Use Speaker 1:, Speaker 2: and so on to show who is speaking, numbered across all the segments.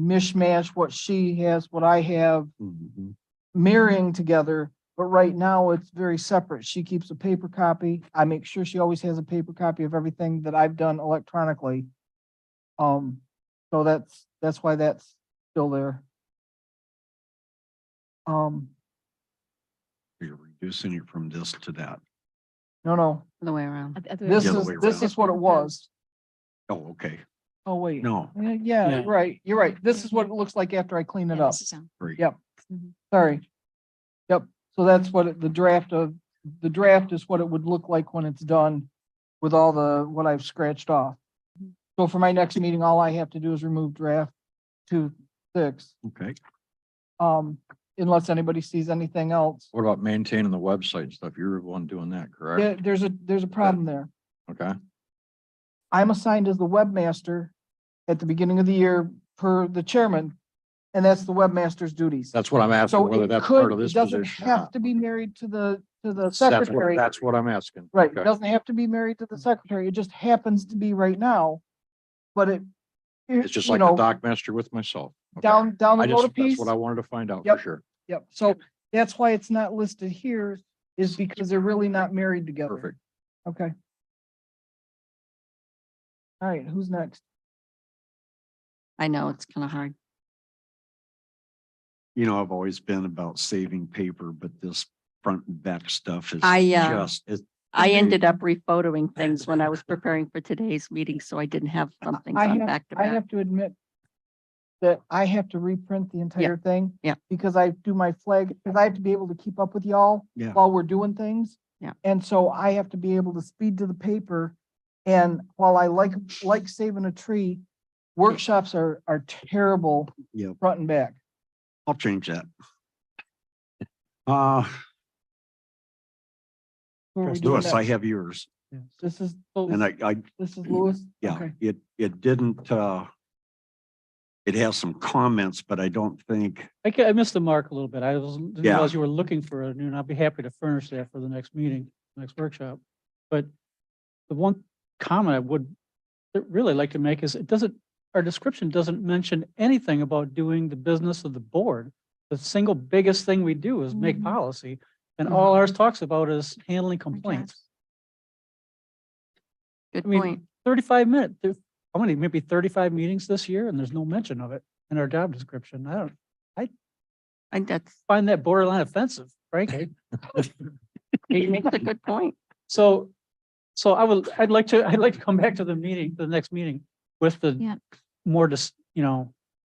Speaker 1: mishmash what she has, what I have,
Speaker 2: Mm-hmm.
Speaker 1: marrying together. But right now it's very separate. She keeps a paper copy. I make sure she always has a paper copy of everything that I've done electronically. Um, so that's, that's why that's still there. Um,
Speaker 2: You're reducing it from this to that.
Speaker 1: no, no,
Speaker 3: The way around.
Speaker 1: this
Speaker 2: The other
Speaker 1: is,
Speaker 2: way
Speaker 1: this
Speaker 2: around.
Speaker 1: is what it was.
Speaker 2: Oh, okay.
Speaker 1: Oh, wait.
Speaker 2: No,
Speaker 1: Yeah, Yeah,
Speaker 4: Yeah.
Speaker 1: you're right. You're right. This is what it looks like after I clean it up.
Speaker 2: great.
Speaker 1: Yep. Sorry. Yep, so that's what it- the draft of, the draft is what it would look like when it's done with all the, what I've scratched off. So for my next meeting, all I have to do is remove draft two, six,
Speaker 2: Okay.
Speaker 1: um, unless anybody sees anything else.
Speaker 2: What about maintaining the website and stuff? You're the one doing that,
Speaker 1: There-
Speaker 2: correct?
Speaker 1: there's a, there's a problem there.
Speaker 2: Okay.
Speaker 1: I'm assigned as the webmaster at the beginning of the year per the chairman, and that's the webmaster's duties.
Speaker 2: That's what I'm asking,
Speaker 1: So
Speaker 2: whether
Speaker 1: it
Speaker 2: that's part of
Speaker 1: could,
Speaker 2: this
Speaker 1: it doesn't
Speaker 2: position. or
Speaker 1: have
Speaker 2: not.
Speaker 1: to be married to the, to the
Speaker 2: That's what-
Speaker 1: secretary.
Speaker 2: That's what I'm asking.
Speaker 1: Right, it
Speaker 2: Okay. Mm.
Speaker 1: doesn't have to be married to the secretary, it just happens to be right now, but it.
Speaker 2: It's just like the doc master with myself. Okay.
Speaker 1: Down, down
Speaker 2: I
Speaker 1: the road a
Speaker 2: just, that's
Speaker 1: piece,
Speaker 2: what I wanted to find out for
Speaker 1: Yep.
Speaker 2: sure.
Speaker 1: yep, so that's why it's not listed here, is because they're really not married together.
Speaker 2: Perfect.
Speaker 1: Okay. All right, who's next?
Speaker 3: I know, it's kind of hard.
Speaker 2: You know, I've always been about saving paper, but this front and back stuff is
Speaker 3: I, uh,
Speaker 2: just, it's
Speaker 3: I
Speaker 2: Okay.
Speaker 3: ended up refotoing things when I was preparing for today's meeting, so I didn't have something
Speaker 1: I
Speaker 3: on
Speaker 1: have-
Speaker 3: back to
Speaker 1: I
Speaker 3: back.
Speaker 1: have to admit that I have to reprint the entire thing.
Speaker 3: yeah.
Speaker 1: Because I do my flag, because I have to be able to keep up with y'all
Speaker 2: Yeah.
Speaker 1: while we're doing things.
Speaker 3: Yeah.
Speaker 1: And so I have to be able to speed to the paper. And while I like, like saving a tree, workshops are, are terrible.
Speaker 2: Yep.
Speaker 1: Front and back.
Speaker 2: I'll change that. Uh,
Speaker 1: Who are we doing
Speaker 2: Lewis, I
Speaker 1: next?
Speaker 2: have yours
Speaker 1: This is,
Speaker 2: and I, I,
Speaker 1: this is Lewis.
Speaker 2: yeah,
Speaker 1: Okay.
Speaker 2: it, it didn't, uh, it has some comments, but I don't think,
Speaker 4: I ca- I missed the mark a little bit. I was, didn't
Speaker 2: Yeah.
Speaker 4: realize you were looking for it, and I'll be happy to furnish that for the next meeting, next workshop. But the one comment I would really like to make is it doesn't, our description doesn't mention anything about doing the business of the board. The single biggest thing we do is make
Speaker 3: Mhm.
Speaker 4: policy, and all ours talks about is handling complaints.
Speaker 3: Good
Speaker 4: I mean,
Speaker 3: point.
Speaker 4: Thirty-five minutes, there's, how many, maybe thirty-five meetings this year, and there's no mention of it in our job description. I don't
Speaker 3: I think that's,
Speaker 4: find that borderline offensive, frankly.
Speaker 3: he makes a good point.
Speaker 4: So, so I will, I'd like to, I'd like to come back to the meeting, the next meeting with
Speaker 5: Yeah.
Speaker 4: the more just, you know,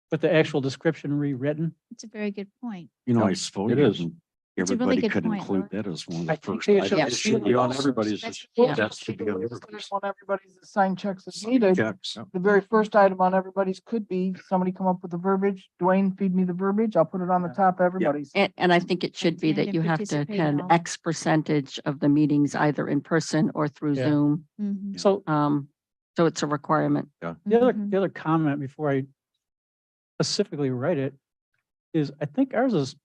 Speaker 4: with the actual description rewritten.
Speaker 5: It's a very good point.
Speaker 2: you know,
Speaker 4: No,
Speaker 2: I suppose.
Speaker 4: it isn't.
Speaker 5: It's a
Speaker 2: Everybody
Speaker 5: really good
Speaker 2: could
Speaker 5: point,
Speaker 2: include
Speaker 5: Laura.
Speaker 2: that as one of
Speaker 4: I
Speaker 2: the
Speaker 4: think
Speaker 2: first.
Speaker 4: they
Speaker 2: items.
Speaker 4: should-
Speaker 3: Yeah.
Speaker 2: It should be on everybody's.
Speaker 5: That's-
Speaker 2: list.
Speaker 5: yeah.
Speaker 2: That should be on everybody's
Speaker 1: First one everybody's assigned checks is needed.
Speaker 2: checks.
Speaker 1: the very first item on everybody's could be, somebody come up with the verbiage, Dwayne, feed me the verbiage, I'll put it on the top of everybody's.
Speaker 3: And, and I think it should be
Speaker 5: Attend
Speaker 3: that
Speaker 5: and
Speaker 3: you have to
Speaker 5: participate in
Speaker 3: attend
Speaker 5: all-
Speaker 3: X percentage of the meetings either in person or through
Speaker 4: Yeah.
Speaker 3: Zoom.
Speaker 5: Mhm,
Speaker 4: So
Speaker 3: Um, so it's a requirement.
Speaker 4: the other,
Speaker 5: mhm.
Speaker 4: the other comment before I specifically write it is I think ours is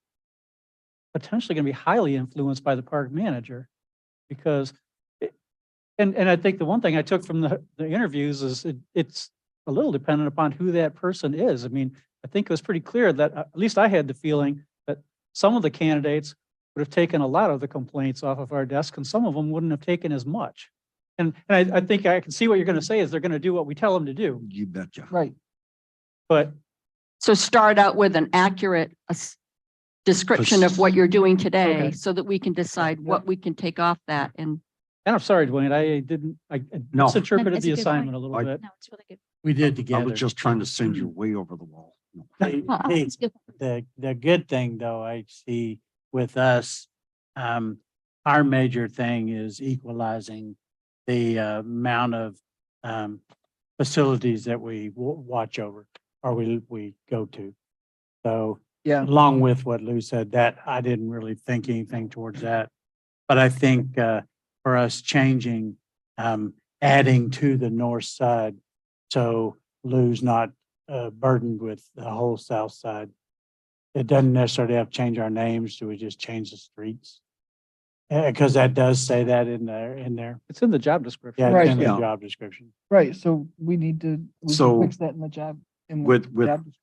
Speaker 4: potentially going to be highly influenced by the park manager because it- and, and I think the one thing I took from the, the interviews is it, it's a little dependent upon who that person is. I mean, I think it was pretty clear that, uh, at least I had the feeling that some of the candidates would have taken a lot of the complaints off of our desk and some of them wouldn't have taken as much. And, and I, I think I can see what you're going to say is they're going to do what we tell them to do,
Speaker 2: You betcha.
Speaker 1: Right,
Speaker 4: but
Speaker 3: So start out with an accurate ass- description of what you're doing today
Speaker 4: Okay.
Speaker 3: so that we can decide
Speaker 4: Yeah.
Speaker 3: what we can take off that and
Speaker 4: And I'm sorry, Dwayne, I didn't, I I
Speaker 2: No.
Speaker 4: misinterpreted
Speaker 5: That's a
Speaker 4: the
Speaker 5: good point.
Speaker 4: assignment a little
Speaker 2: I-
Speaker 4: bit.
Speaker 5: No, it's really good.
Speaker 6: We did
Speaker 2: I
Speaker 6: together.
Speaker 2: was just trying to send
Speaker 4: Mm-hmm.
Speaker 2: you way over the wall. No.
Speaker 6: Hey,
Speaker 3: Well,
Speaker 6: hey,
Speaker 5: It's good.
Speaker 6: The, the good thing though, I see with us, um, our major thing is equalizing the uh, amount of, um, facilities that we wa- watch over or we, we go to. So
Speaker 1: yeah,
Speaker 6: along with what Lou said, that I didn't really think anything towards that. But I think uh, for us changing, um, adding to the north side, so Lou's not uh, burdened with the whole south side. It doesn't necessarily have to change our names. Do we just change the streets? because that does say that in there, in there.
Speaker 4: It's in the job description.
Speaker 6: Yeah, it's in the
Speaker 2: Right. Yeah.
Speaker 6: job description.
Speaker 1: right, so we need to, we can
Speaker 2: So-
Speaker 1: fix that in the job. in the
Speaker 2: With- with-
Speaker 1: job description.